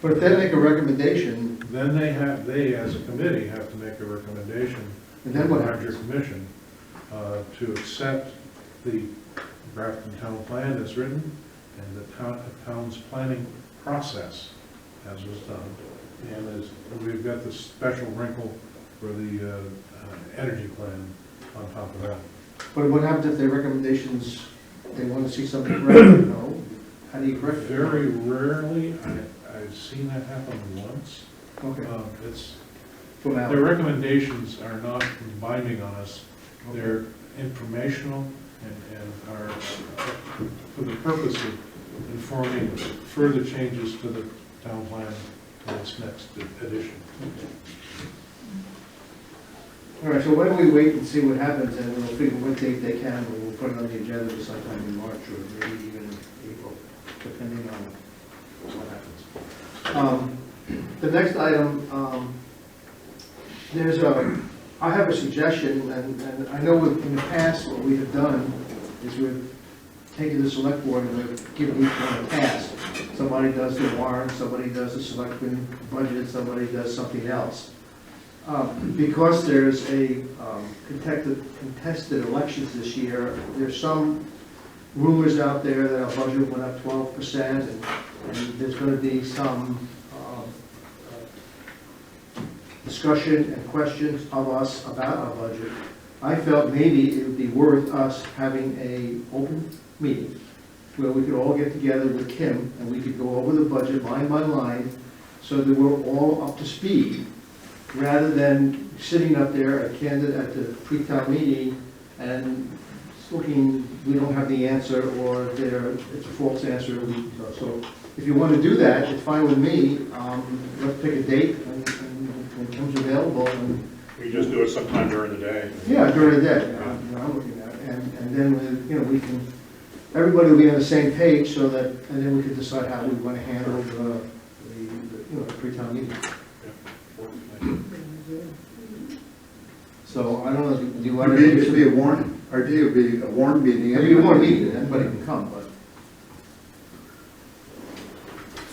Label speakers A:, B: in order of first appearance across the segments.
A: But if they make a recommendation,
B: Then they have, they as a committee have to make a recommendation
A: and then what
B: Larger
A: happens?
B: commission, uh, to accept the Grafton Town Plan as written and the town, the town's planning process as was done. And as, we've got the special wrinkle for the, uh, uh, energy plan on top of that.
A: But what happens if their recommendations, they want to see something corrected, no? How do you correct it?
B: Very rarely, I, I've seen that happen once.
A: Okay,
B: Uh, it's, their
A: formality.
B: recommendations are not binding on us, They're informational and, and are for the purpose of informing further changes to the town plan in its next edition.
A: All right, so why don't we wait and see what happens, and we'll figure what date they can, and we'll put it on the agenda for sometime in March or maybe even in April, depending on what happens. Um, The next item, um, there's a, I have a suggestion, and, and I know with- in the past, what we have done is we've taken the select board and we've given each one a task. Somebody does the warrant, somebody does the selectmen budget, somebody does something else. Um, Because there's a um, contested, contested elections this year, there's some rumors out there that our budget went up twelve percent, and and there's gonna be some um, uh, discussion and questions of us about our budget. I felt maybe it would be worth us having a open meeting where we could all get together with Kim and we could go over the budget line by line so that we're all up to speed, rather than sitting up there a candidate at the pre-town meeting and looking, we don't have the answer, or there, it's a false answer, we- so if you want to do that, it's fine with me, um, let's pick a date and, and when it comes available, and,
C: We just do it sometime during the day.
A: yeah, during the day, you know, you know, I'm looking at, it. and, and then, we- you know, we can, everybody will be on the same page so that, and then we can decide how we want to handle the, the, you know, the pre-town meeting. So I don't know, do you want
D: Our
A: to?
D: day should be a warning, our day would be a warning meeting.
A: It'll be a warm meeting, anybody can come, but,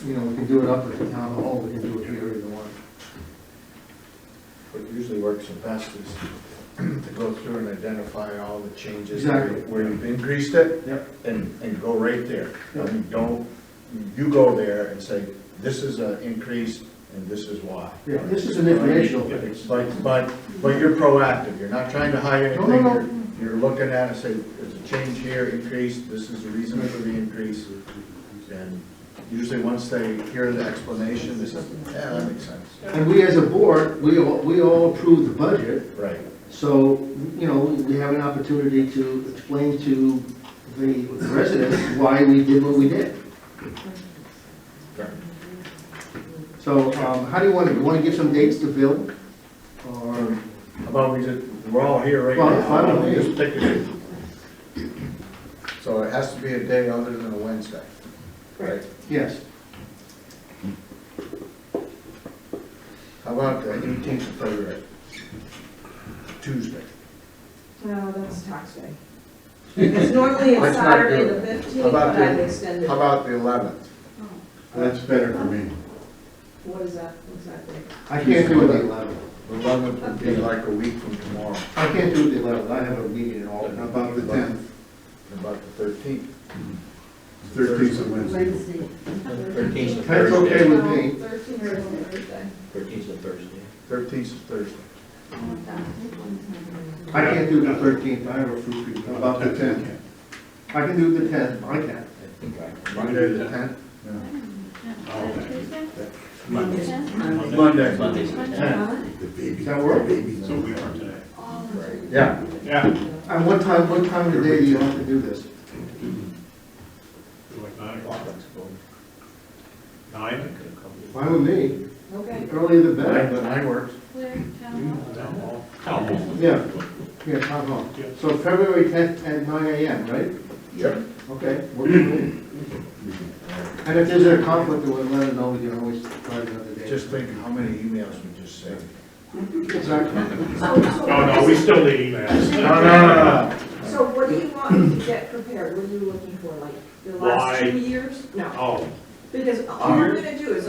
A: you know, we can do it up at the town hall, we can do it here, either one.
E: What usually works the best is to go through and identify all the changes.
A: Exactly.
E: Where you've increased it.
A: Yep.
E: And, and go right there.
A: Yep.
E: And don't, you go there and say, this is an increase and this is why.
A: Yeah, this is an informational thing.
E: But, but, but you're proactive, you're not trying to hide
A: No,
E: anything.
A: no, no.
E: You're you're looking at it, say, there's a change here, increase, this is the reason for the increase. And usually once they hear the explanation, they say, yeah, that makes sense.
A: And we as a board, we all, we all approve the budget,
E: Right.
A: so, you know, we have an opportunity to explain to the residents why we did what we did.
E: Right.
A: So, um, how do you want, to you want to give some dates to Bill? Or,
E: How about we just, we're all here right now.
A: Well, I don't
E: Why
A: think-
E: we just pick a day? So it has to be a day other than a Wednesday, right?
A: yes,
E: How about the eighteenth of February? Tuesday.
F: No, that's tax day. It's normally it's
E: Let's not do
F: Saturday the
E: it.
F: fifteenth,
E: How about
F: but I've
E: the-
F: extended. it.
E: How about the eleventh?
F: Oh,
D: That's better for me.
F: What is that exactly?
A: I can't do it the eleventh,
E: The eleventh would be like a week from tomorrow,
A: I can't do it the eleventh, I have a meeting in
E: And
A: Albany.
D: About the tenth,
E: and about the thirteenth.
D: thirteenth of Wednesday.
G: Thirteenth of
A: That's okay
G: Thursday.
A: with me.
F: Thirteenth or Thursday.
G: Thirteenth of Thursday.
E: Thirteenth is Thursday.
A: I can't do the thirteenth, I have a fruit treat.
D: About the tenth.
A: I can do the tenth, I can.
G: I think I,
E: Monday the tenth?
G: Monday. Monday's the tenth.
D: The baby.
A: Does that work?
D: Baby.
C: So we are today.
E: Right. Yeah.
C: Yeah.
A: And what time, what time of the day do you want to do this?
C: Like nine o'clock. Nine?
A: Why would me?
F: Okay.
A: Earlier the
E: Nine,
A: better,
E: nine works.
C: Town hall. Town hall.
A: but, yeah, yeah, town hall.
C: Yeah.
A: So February tenth at nine AM, right?
E: Yep.
A: Okay. works for me. And if there's a conflict, we'll let it know, we can always try another day.
E: Just think how many emails we just saved.
A: Exactly.
C: No, no, we still need emails.
E: No, no, no,
F: So what do you want to get prepared? What are you looking for, like, the
C: Why?
F: last two years? No,
C: Oh,
F: because all I'm
C: Here?
F: gonna do is